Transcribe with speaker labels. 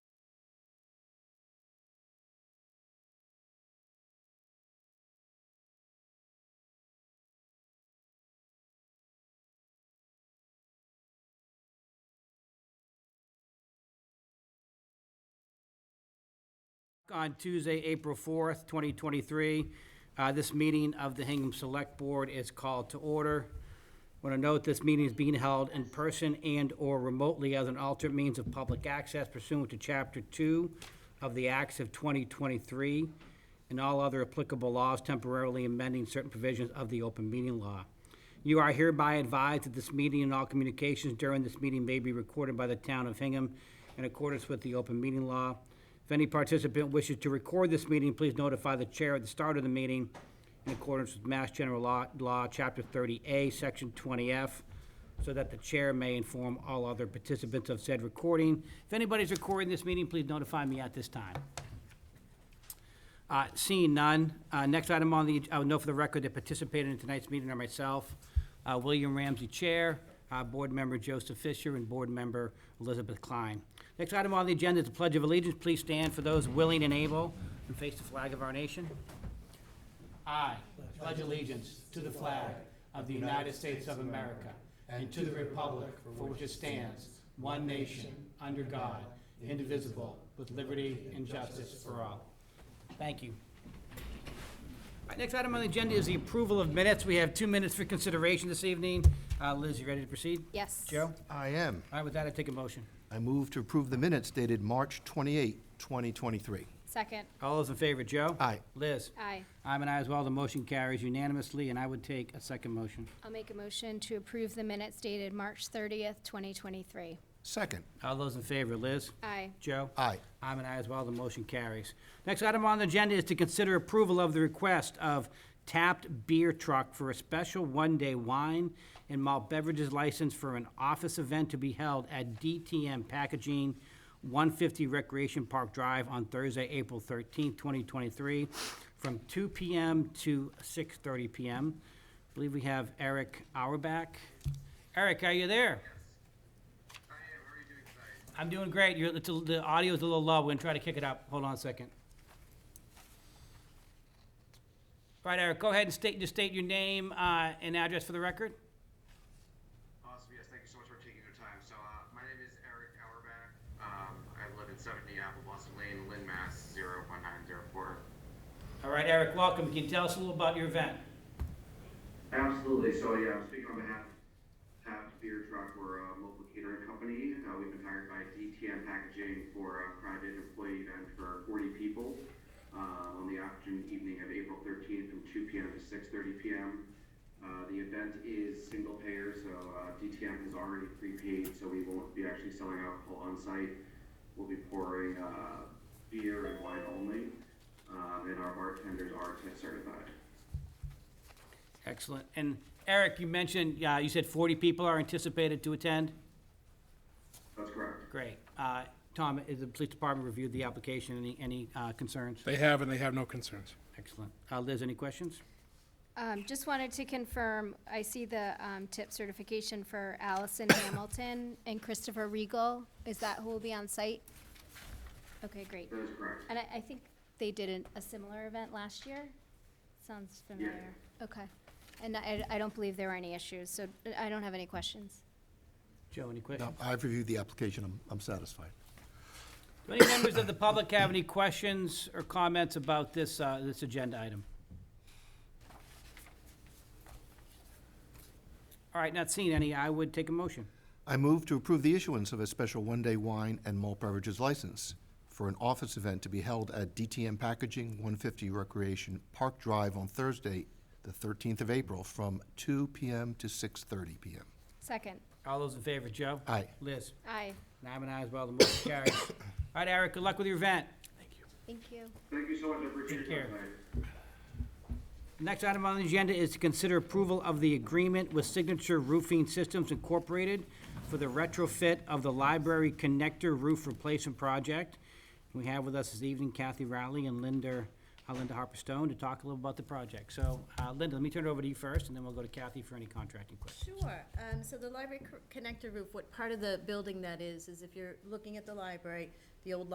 Speaker 1: on Tuesday, April 4th, 2023. Uh, This meeting of the Hingham Select Board is called to order. Want to note, this meeting is being held in person and/or remotely as an alternate means of public access pursuant to Chapter 2 of the Acts of 2023 and all other applicable laws temporarily amending certain provisions of the open meeting law. You are hereby advised that this meeting and all communications during this meeting may be recorded by the town of Hingham in accordance with the open meeting law. If any participant wishes to record this meeting, please notify the chair at the start of the meeting in accordance with Mass General Law, Law, Chapter 30A, Section 20F, so that the chair may inform all other participants of said recording. If anybody's recording this meeting, please notify me at this time. Uh, Seeing none, uh, next item on the, I would note for the record that participated in tonight's meeting are myself, uh, William Ramsey Chair, uh, Board Member Joseph Fisher, and Board Member Elizabeth Klein. Next item on the agenda is the Pledge of Allegiance. Please stand for those willing and able and face the flag of our nation. I pledge allegiance to the flag of the United States of America and to the republic for which it stands, one nation, under God, indivisible, with liberty and justice for all. Thank you. All right, Next item on the agenda is the approval of minutes. We have two minutes for consideration this evening. Uh, Liz, you ready to proceed?
Speaker 2: Yes.
Speaker 1: Joe?
Speaker 3: I am.
Speaker 1: All right, with that, I take a motion.
Speaker 3: I move to approve the minutes dated March 28, 2023.
Speaker 2: Second,
Speaker 1: All those in favor, Joe?
Speaker 3: Aye.
Speaker 1: Liz?
Speaker 2: aye.
Speaker 1: I'm an aye as well. The motion carries unanimously, and I would take a second motion.
Speaker 2: I'll make a motion to approve the minutes dated March 30th, 2023.
Speaker 3: Second.
Speaker 1: All those in favor, Liz?
Speaker 2: Aye.
Speaker 1: Joe?
Speaker 3: Aye.
Speaker 1: I'm an aye as well, the motion carries. Next item on the agenda is to consider approval of the request of Tapped Beer Truck for a special one-day wine and malt beverages license for an office event to be held at DTM Packaging, 150 Recreation Park Drive on Thursday, April 13th, 2023, from 2 PM to 6:30 PM. I believe we have Eric Auerbach. Eric, are you there? I'm doing great. You're, it's a, the audio's a little low. We're gonna try to kick it up. Hold on a second. All right, Eric, go ahead and state, just state your name, uh, and address for the record.
Speaker 4: Awesome. Yes, thank you so much for taking your time. So, uh, my name is Eric Auerbach. Um, I live in 70 Apple Blossom Lane, Lynn, Mass. 01904.
Speaker 1: All right, Eric, welcome. Can you tell us a little about your event?
Speaker 4: Absolutely. So, yeah, I'm speaking on behalf of Taft Beer Truck. We're a local catering company. Uh, we've been hired by DTM Packaging for a private employee event for 40 people uh, on the afternoon evening of April 13th from 2 p.m. to 6:30 p.m. Uh, the event is single payer, so uh, DTM has already prepaid, so we won't be actually selling alcohol on site. We'll be pouring uh, beer and wine only, um, and our bartenders are tip certified.
Speaker 1: Excellent. And Eric, you mentioned, uh, you said forty people are anticipated to attend?
Speaker 4: That's correct.
Speaker 1: Great. Uh, Tom, is the police department reviewed the application? Any, any, uh, concerns?
Speaker 5: They have, and they have no concerns.
Speaker 1: Excellent. Uh, Liz, any questions?
Speaker 2: Um, Just wanted to confirm, I see the um, tip certification for Allison Hamilton and Christopher Regal. Is that who will be on site? Okay, great.
Speaker 4: That is correct.
Speaker 2: And I, I think they did an- a similar event last year? Sounds familiar. Okay. And I, I don't believe there were any issues, so I don't have any questions.
Speaker 1: Joe, any questions?
Speaker 3: No, I've reviewed the application. I'm, I'm satisfied.
Speaker 1: Do any members of the public have any questions or comments about this, uh, this agenda item? All right, not seeing any, I would take a motion.
Speaker 3: I move to approve the issuance of a special one-day wine and malt beverages license for an office event to be held at DTM Packaging, 150 Recreation Park Drive on Thursday, the 13th of April, from 2 p.m. to 6:30 p.m.
Speaker 2: Second,
Speaker 1: All those in favor, Joe?
Speaker 3: Aye.
Speaker 1: Liz?
Speaker 2: aye.
Speaker 1: And I'm an aye as well, the motion carries. All right, Eric, good luck with your event.
Speaker 2: Thank you.
Speaker 4: Thank you so much. I appreciate
Speaker 1: Take
Speaker 4: your
Speaker 1: care.
Speaker 4: time tonight.
Speaker 1: Next item on the agenda is to consider approval of the agreement with Signature Roofing Systems Incorporated for the retrofit of the library connector roof replacement project. We have with us this evening Kathy Rowley and Linda, uh, Linda Harper Stone to talk a little about the project. So, uh, Linda, let me turn it over to you first, and then we'll go to Kathy for any contracting questions.
Speaker 6: Sure, um, so the library co- connector roof, what part of the building that is, is if you're looking at the library, the old